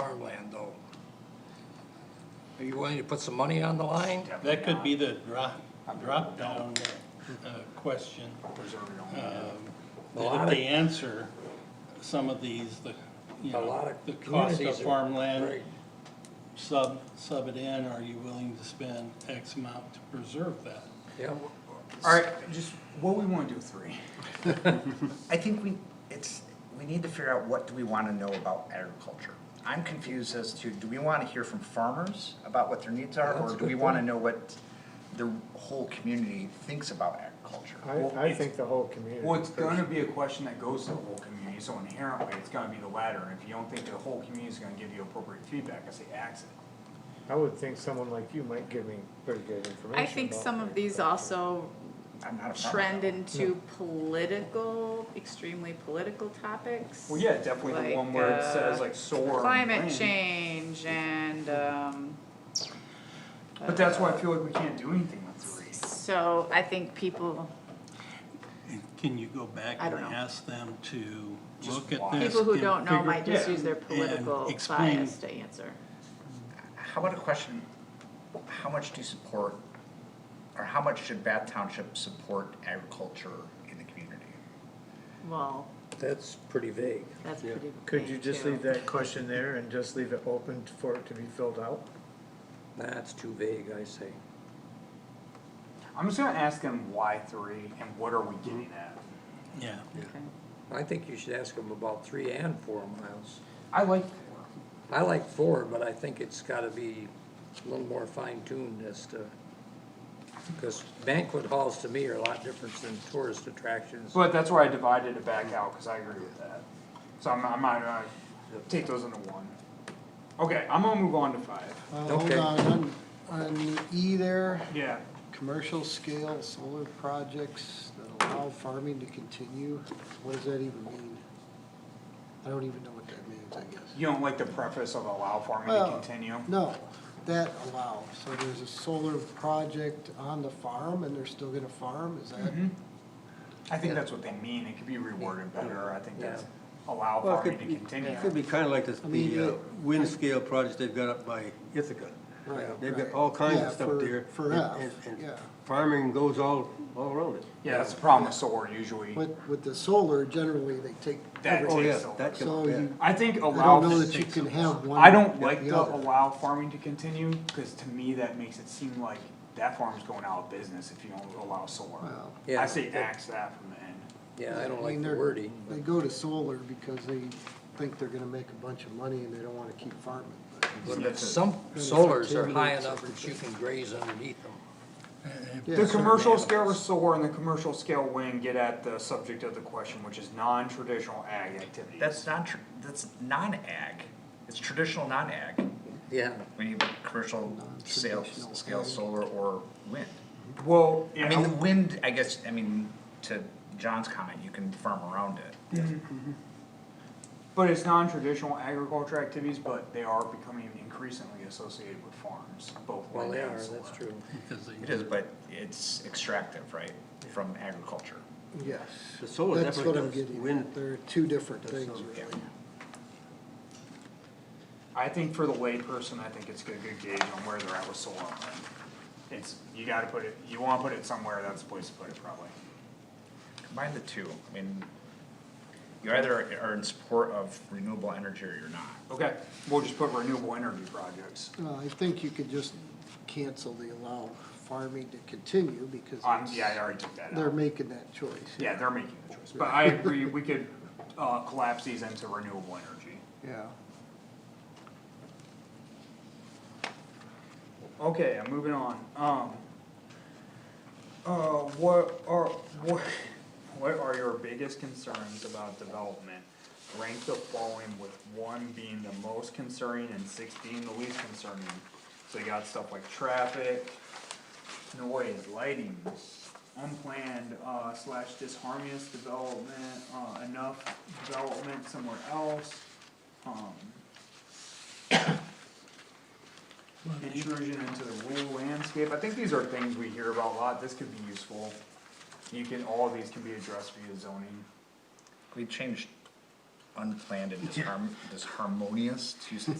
farmland though. Are you willing to put some money on the line? That could be the drop, drop-down uh, question. um, That if they answer some of these, the, you A lot know, of the cost of communities are- farmland, Right. sub, sub it in, are you willing to spend X amount to preserve that? Yeah, Alright, just, what we wanna do with three? I think we, it's, we need to figure out what do we wanna know about agriculture. I'm confused as to, do we wanna hear from farmers about what their needs are, That's a or do we good wanna point. know what the whole community thinks about agriculture? I, I think the whole community. Well, it's gonna be a question that goes to the whole community, so inherently, it's gonna be the latter, and if you don't think the whole community's gonna give you appropriate feedback, I say ax it. I would think someone like you might give me pretty good information. I think about some of these agriculture. also I'm not a farmer. trend into political, extremely political topics. Well, yeah, definitely the one where it says like soar. and uh, Climate land. change and, um, But that's why I feel like we can't do anything with three. so I think people, And Can you go back I and don't know. ask them to Just look at watch. this? people who and don't know figure- might just yeah, use their and political explain- bias to answer. How about a question, how much do you support, or how much should Bath Township support agriculture in the community? Well, that's pretty vague. that's pretty. Could vague, you just too. leave that question there and just leave it open for it to be filled out? That's too vague, I say. I'm just gonna ask them why three, and what are we getting at? Yeah, Okay. I think you should ask them about three and four miles. I like four. I like four, but I think it's gotta be a little more fine tuned as to, because banquet halls to me are a lot different than tourist attractions. But that's where I divided it back out, cause I agree with that. So I'm, I might, uh, take those into one. Okay, I'm gonna move on to five. Uh, Hold Okay. on, on, on the E there, Yeah, commercial scale solar projects that allow farming to continue, what does that even mean? I don't even know what that means, I guess. you don't like the preface of allow farming to Well, continue? No, that allow, so there's a solar project on the farm and they're still gonna farm, is that? Mm-hmm. I think that's what they mean, it could be reworded better, I think that's allow Well, it farming to could be- continue. It could be kind of like this, I mean, the uh, it- wind scale projects they've got up by Ithaca. Right, They've got right. all kinds Yeah, of stuff for- there. For and- F, and- and yeah. Farming goes all, all around it. Yeah, that's the problem with solar usually, But with the solar, generally they take that everything. Oh, yeah, takes solar. that could, So yeah. you, I think I allow don't know just that you takes can have one. I don't like the the other. allow farming to continue, cause to me that makes it seem like that farm's going out of business if you don't allow solar. Well, Yeah. I say axe that from the end. Yeah, I don't mean, like the they're- wording. but- They go to solar because they think they're gonna make a bunch of money and they don't wanna keep farming. but- Some solars are high enough that you can graze underneath them. Yeah, The so- commercial scale solar and the commercial scale wind get at the subject of the question, which is non-traditional ag activities. That's not, tr- that's non-ag, it's traditional non-ag. Yeah. We need commercial sales, Non-traditional scale ag. solar or wind. Well, I mean, the yeah, wind, I guess, I mean, to John's comment, you can farm around it. but it's non-traditional agriculture activities, but they are becoming increasingly associated with farms, both Well, wind they are, and solar. that's true. because they. It is, but it's extractive, right, from agriculture. Yes. The solar That's definitely what I'm does. getting Wind- at. They're two different That's things, solar. really. I think for the layperson, I think it's a good gauge on where they're at with solar. and wind. It's, you gotta put it, you wanna put it somewhere, that's the place to put it probably. Combine the two, I mean, you either are in support of renewable energy or you're not. Okay, we'll just put renewable energy projects. Well, I think you could just cancel the allow farming to continue because Um, yeah, I it's- already took that out. they're making that choice. Yeah, they're making the choice, but I agree, we could, uh, collapse these into renewable energy. Yeah. Okay, I'm moving on, um. Uh, what are, what, what are your biggest concerns about development? Rank the following with one being the most concerning and six being the least concerning. So you got stuff like traffic, noise, lighting, unplanned, uh, slash disharmonious development, uh, enough development somewhere else. Um, intrusion into the rural landscape, I think these are things we hear about a lot, this could be useful. You can, all of these can be addressed via zoning. We changed unplanned and disharm- disharmonious to